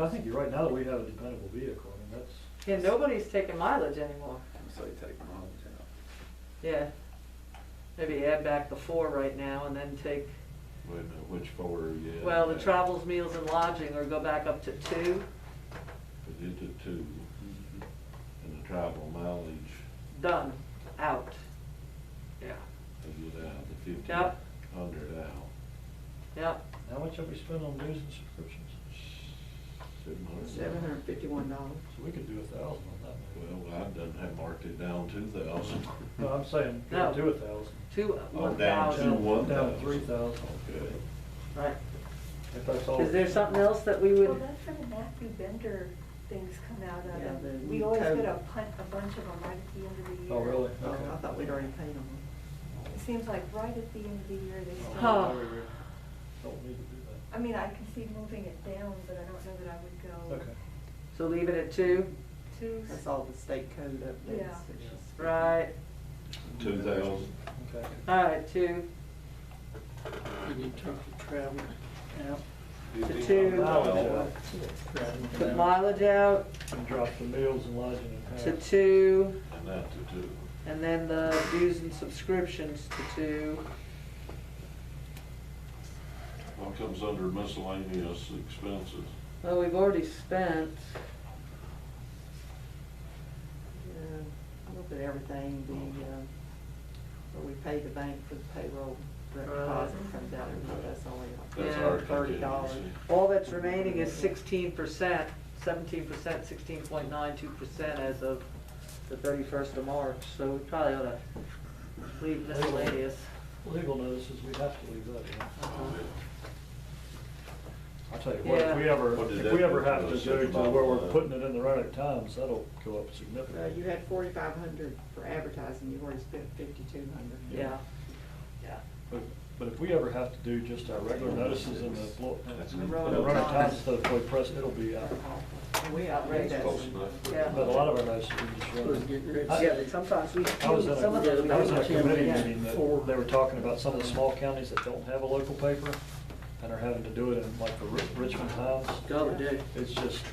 I think you're right, now that we have a dependable vehicle, I mean, that's, Yeah, nobody's taking mileage anymore. So you take mileage out. Yeah. Maybe add back the four right now and then take, Wait a minute, which four are you at? well, the travels, meals and lodging or go back up to two, If you did two, and the travel mileage, done, out. Yeah. if you out the fifteen Yep. hundred out, Yep, how much have we spent on dues and subscriptions? seven hundred. Seven hundred fifty-one dollars. So we could do a thousand on that. maybe. Well, I done have marked it down two thousand. No, Oh, I'm saying, we could do a thousand. two, uh, Oh, one down to thousand. one thousand. Down three thousand, Okay. Right. if that's all. Is there something else that we Well, would, that's where the Matthew Bender things come out of, Yeah, the and we always code. get a pun, a bunch of them right at the end of the year. Oh, really? Oh, Okay. I thought we'd already paid them. It seems like right at the end of the year, they Oh, Huh. no, start. we really Don't need to do that. I mean, I can see moving it down, but I don't know that I would go. Okay. so leave it at two? Two. That's all the state code updates. Yeah. which is- Right, Two thousand. Okay. all right, two, And you took the travel out, to two, Mileage put travel out. mileage out, out, and drop the meals and lodging in half. to two. And that to two. And then the dues and subscriptions to two, What comes under miscellaneous expenses? well, we've already spent, Yeah, A little bit of everything, the, uh, where we pay the bank for the payroll, the Right. deposit comes out, every month. that's only That's Yeah. our like thirty dollars. contingency. all that's remaining is sixteen percent, seventeen percent, sixteen point nine two percent as of the thirty-first of March, so we probably ought to leave miscellaneous. Legal notices, we have to leave that in. Uh-huh. I'll tell you what, if we Yeah. ever, What did if that we ever do for have to the do it by supervisor? where we're putting it in the right times, that'll go up Uh, you significantly. had forty-five hundred for advertising, you've already spent fifty-two hundred. Yeah, yeah. But, but if we ever have to do just our regular notices in the, blo- That's in me. the right times instead of for the press, it'll be out. And we outrate that. Close some. enough. Yeah. But a lot of our notices we just Was run. getting ready. Yeah, but sometimes we, I was in a, some of those. we I was in a don't have. committee yeah. meeting that they were talking about some of the small counties that don't have a local paper and are having to do it in like the Ri- Richmond Times. The other day, It's just,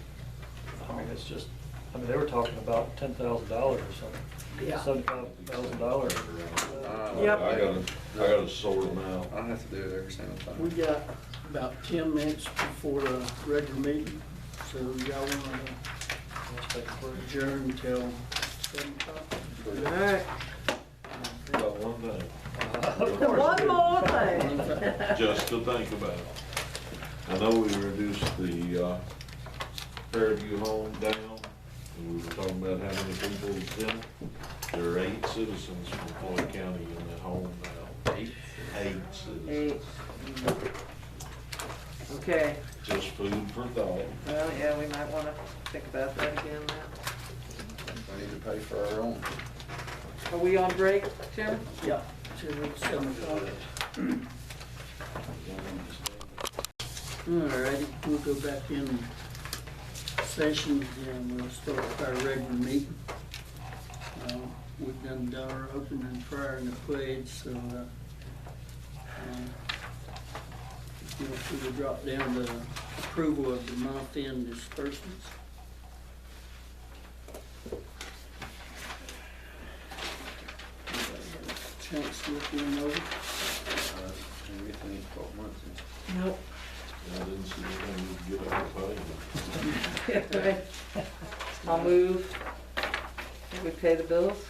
I mean, it's just, I mean, they were talking about ten thousand dollars or something. Yeah. Seventy-five thousand dollars. Uh, Yep. I gotta, I gotta sort them out. I don't have to do it every single time. we got about ten minutes before the regular meeting, so y'all want to adjourn till seven o'clock? Got one thing. One more thing. just to think about. I know we reduced the uh, Fairview home down, and we were talking about how many people is in. it. There are eight citizens from Floyd County in that home now. Eight? Eight Eight. citizens. Okay, Just food for thought. well, yeah, we might wanna think about that again now. We need to pay for our own. Are we on break, Jim? Yeah, till seven o'clock. All righty, we'll go back in session and we'll start with our regular meeting. Uh, We've done done our opening prayer and the pledge, so uh, um, you know, if we would drop down to approval of the month-end disbursements. Anybody have a Chance to look them over? Uh, And we think it's twelve months. Nope. I didn't see anything we could get out of paying. I'll move. Think We pay the bills?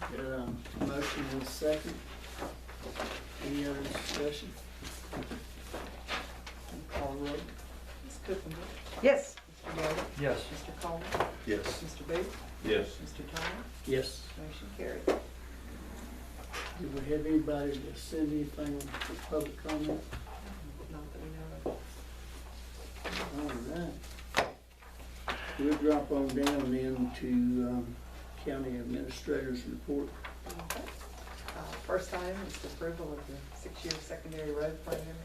Got a motion and a second. Any other discussion? Call the roll. Ms. Cookham, Yes. Mr. Yeldon, Yes. Mr. Coleman, Yes. Mr. Booth, Yes. Mr. Thomas, Yes. motion carried. Do we have anybody to send anything for public comment? Not that we know of. All right. We'll drop on down then to um, county administrators report. Okay. Uh, First item is approval of the six-year secondary road program.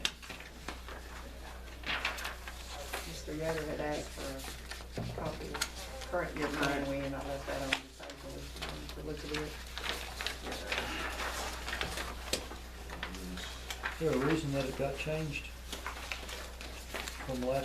Mr. Yoder had asked for a copy of current year plan, we and I left that on the table if you wanted to look at it. Is there a reason that it got changed from last